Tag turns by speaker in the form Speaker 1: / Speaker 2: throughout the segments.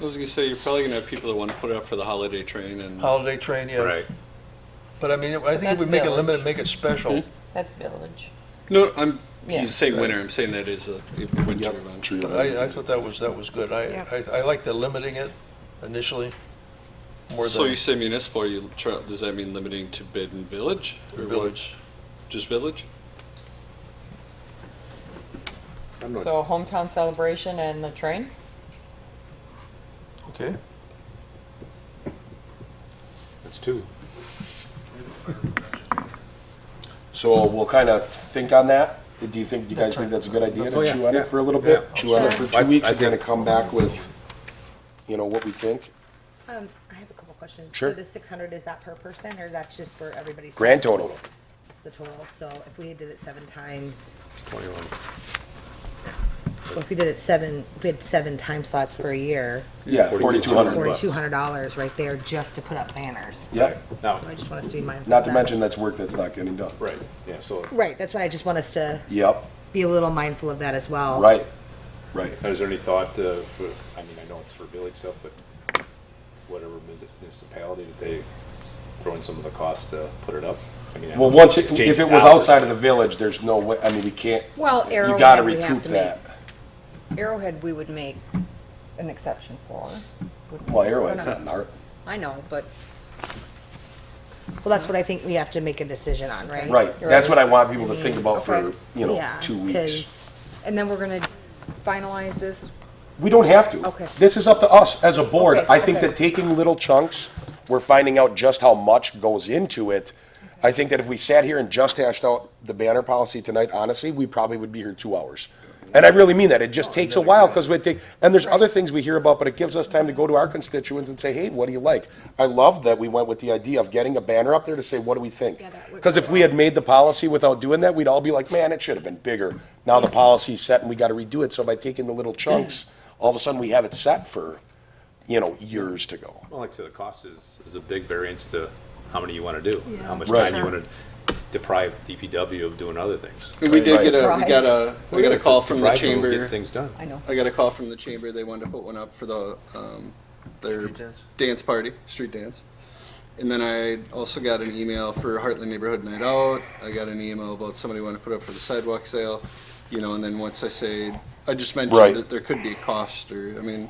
Speaker 1: I was gonna say, you're probably gonna have people that wanna put it up for the holiday train and,
Speaker 2: holiday train, yes.
Speaker 3: Right.
Speaker 2: But I mean, I think if
Speaker 4: That's
Speaker 2: we make it
Speaker 4: village.
Speaker 2: limited, make it special.
Speaker 4: That's village.
Speaker 1: no, I'm,
Speaker 4: Yeah.
Speaker 1: you say winter, I'm saying that is a a winter event.
Speaker 5: Tree
Speaker 2: I, I thought that was, that was good. I,
Speaker 6: Yeah.
Speaker 2: I, I like the limiting it initially. More
Speaker 1: So you
Speaker 2: than
Speaker 1: say municipal, are you, try- does that mean limiting to bid and village? or what?
Speaker 2: village.
Speaker 1: Just village?
Speaker 3: I'm not-
Speaker 4: So hometown celebration and the train?
Speaker 2: Okay,
Speaker 3: That's two.
Speaker 5: So we'll kind of think on that. Do you think, do you guys think that's a good idea
Speaker 3: Oh,
Speaker 5: to
Speaker 3: yeah,
Speaker 5: chew on
Speaker 3: yeah.
Speaker 5: it for a little bit?
Speaker 3: Yeah.
Speaker 5: Chew on it for
Speaker 3: I-
Speaker 5: two weeks
Speaker 3: I
Speaker 5: and then
Speaker 3: think-
Speaker 5: come back with, you know, what we think?
Speaker 6: Um, I have a couple questions.
Speaker 5: Sure.
Speaker 6: So the six hundred, is that per person, or that's just for everybody's?
Speaker 5: Grand total.
Speaker 6: It's the total, so if we did it seven times,
Speaker 3: Twenty-one.
Speaker 6: well, if we did it seven, if we had seven time slots per year,
Speaker 5: Yeah,
Speaker 3: 4,200
Speaker 5: 4,200.
Speaker 3: bucks.
Speaker 6: forty-two hundred dollars right there just to put up banners.
Speaker 5: Yep.
Speaker 3: Now,
Speaker 6: So I just want us to be mindful
Speaker 5: Not
Speaker 6: of
Speaker 5: to
Speaker 6: that.
Speaker 5: mention that's work that's not getting done.
Speaker 3: right, yeah, so
Speaker 6: Right, that's why I just want us to
Speaker 5: Yep,
Speaker 6: be a little mindful of that as well.
Speaker 5: right, right.
Speaker 3: is there any thought uh, for, I mean, I know it's for village stuff, but whatever municipality, did they throw in some of the cost to put it up? I mean, I
Speaker 5: Well,
Speaker 3: know
Speaker 5: once,
Speaker 3: it's
Speaker 5: it- if it
Speaker 3: $8.
Speaker 5: was outside of the village, there's no way, I mean, we can't,
Speaker 6: Well,
Speaker 5: you gotta
Speaker 6: Arrowhead, we have
Speaker 5: recoup
Speaker 6: to
Speaker 5: that.
Speaker 6: make, Arrowhead, we would make an exception for. wouldn't
Speaker 5: Well,
Speaker 6: we?
Speaker 5: Arrowhead's
Speaker 6: We're
Speaker 5: not an art.
Speaker 6: I know, but. Well, that's what I think we have to make a decision on, right?
Speaker 5: Right, that's what I want people to think about for,
Speaker 6: Okay.
Speaker 5: you know,
Speaker 6: Yeah,
Speaker 5: two weeks.
Speaker 6: 'cause- And then we're gonna finalize this,
Speaker 5: We don't have to.
Speaker 6: Okay.
Speaker 5: This is up to us as a board.
Speaker 6: Okay,
Speaker 5: I think
Speaker 6: okay.
Speaker 5: that taking little chunks, we're finding out just how much goes into it. I think that if we sat here and just hashed out the banner policy tonight, honestly, we probably would be here two hours. And I really mean that. It just takes a while because we take, and there's other things we hear about, but it gives us time to go to our constituents and say, hey, what do you like? I love that we went with the idea of getting a banner up there to say, what do we think?
Speaker 6: Yeah, that would-
Speaker 5: Because if we had made the policy without doing that, we'd all be like, man, it should have been bigger. Now the policy's set and we got to redo it. So by taking the little chunks, all of a sudden we have it set for, you know, years to go.
Speaker 3: Well, like I said, the cost is, is a big variance to how many you want to do, and how much
Speaker 5: Right.
Speaker 3: time you want to deprive DPW of doing other things.
Speaker 1: And We did
Speaker 5: Right.
Speaker 1: get a, we
Speaker 6: Right.
Speaker 1: got a, we got a
Speaker 3: It's
Speaker 1: call
Speaker 3: just
Speaker 1: from the
Speaker 3: deprive people of
Speaker 1: chamber.
Speaker 3: Getting things done.
Speaker 6: I know.
Speaker 1: I got a call from the chamber. They wanted to put one up for the um, their
Speaker 2: Street dance?
Speaker 1: party, street dance. And then I also got an email for Heartland Neighborhood Night Out. I got an email about somebody wanting to put up for the sidewalk sale, you know. And then once I say, I just mentioned
Speaker 5: Right.
Speaker 1: that there could be a cost, or I mean,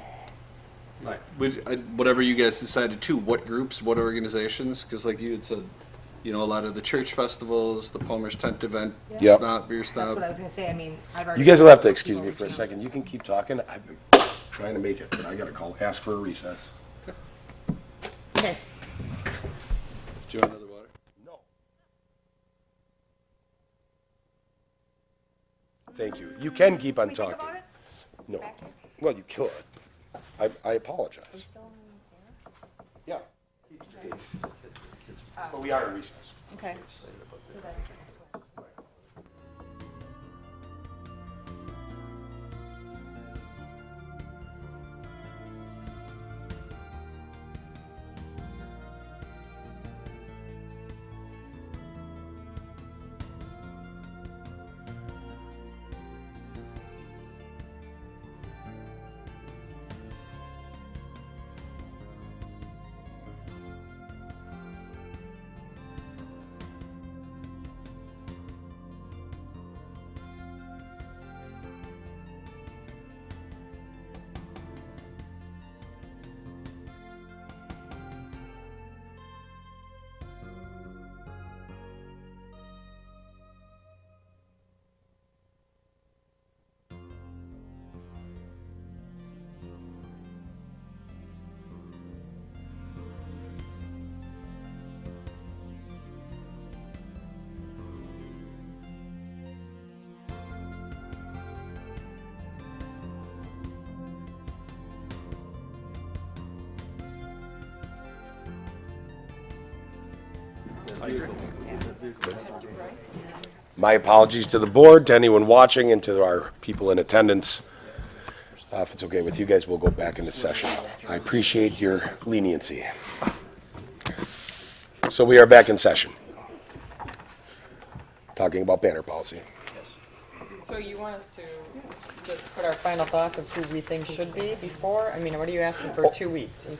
Speaker 3: Right.
Speaker 1: would, I, whatever you guys decided too. What groups, what organizations? Because like you had said, you know, a lot of the church festivals, the Palmer's Tent event,
Speaker 5: Yep.
Speaker 1: Snot Beer
Speaker 6: That's what I
Speaker 1: Snob.
Speaker 6: was gonna say, I mean, I've already.
Speaker 5: You guys will have to excuse me for a second. You can keep talking. I've been trying to make it, but I got to call, ask for a recess.
Speaker 6: Okay.
Speaker 1: Do you want another water?
Speaker 5: Thank you. You can keep on
Speaker 6: we think
Speaker 5: talking.
Speaker 6: about it?
Speaker 5: No. Well, you could. I, I apologize. Yeah. But we are in recess.
Speaker 6: Okay.
Speaker 5: My apologies to the board, to anyone watching, and to our people in attendance. Uh, If it's okay with you guys, we'll go back into session. I appreciate your leniency. So we are back in session. Talking about banner policy.
Speaker 4: So you want us to just put our final thoughts of who we think should be before? I mean, what are you asking for two weeks?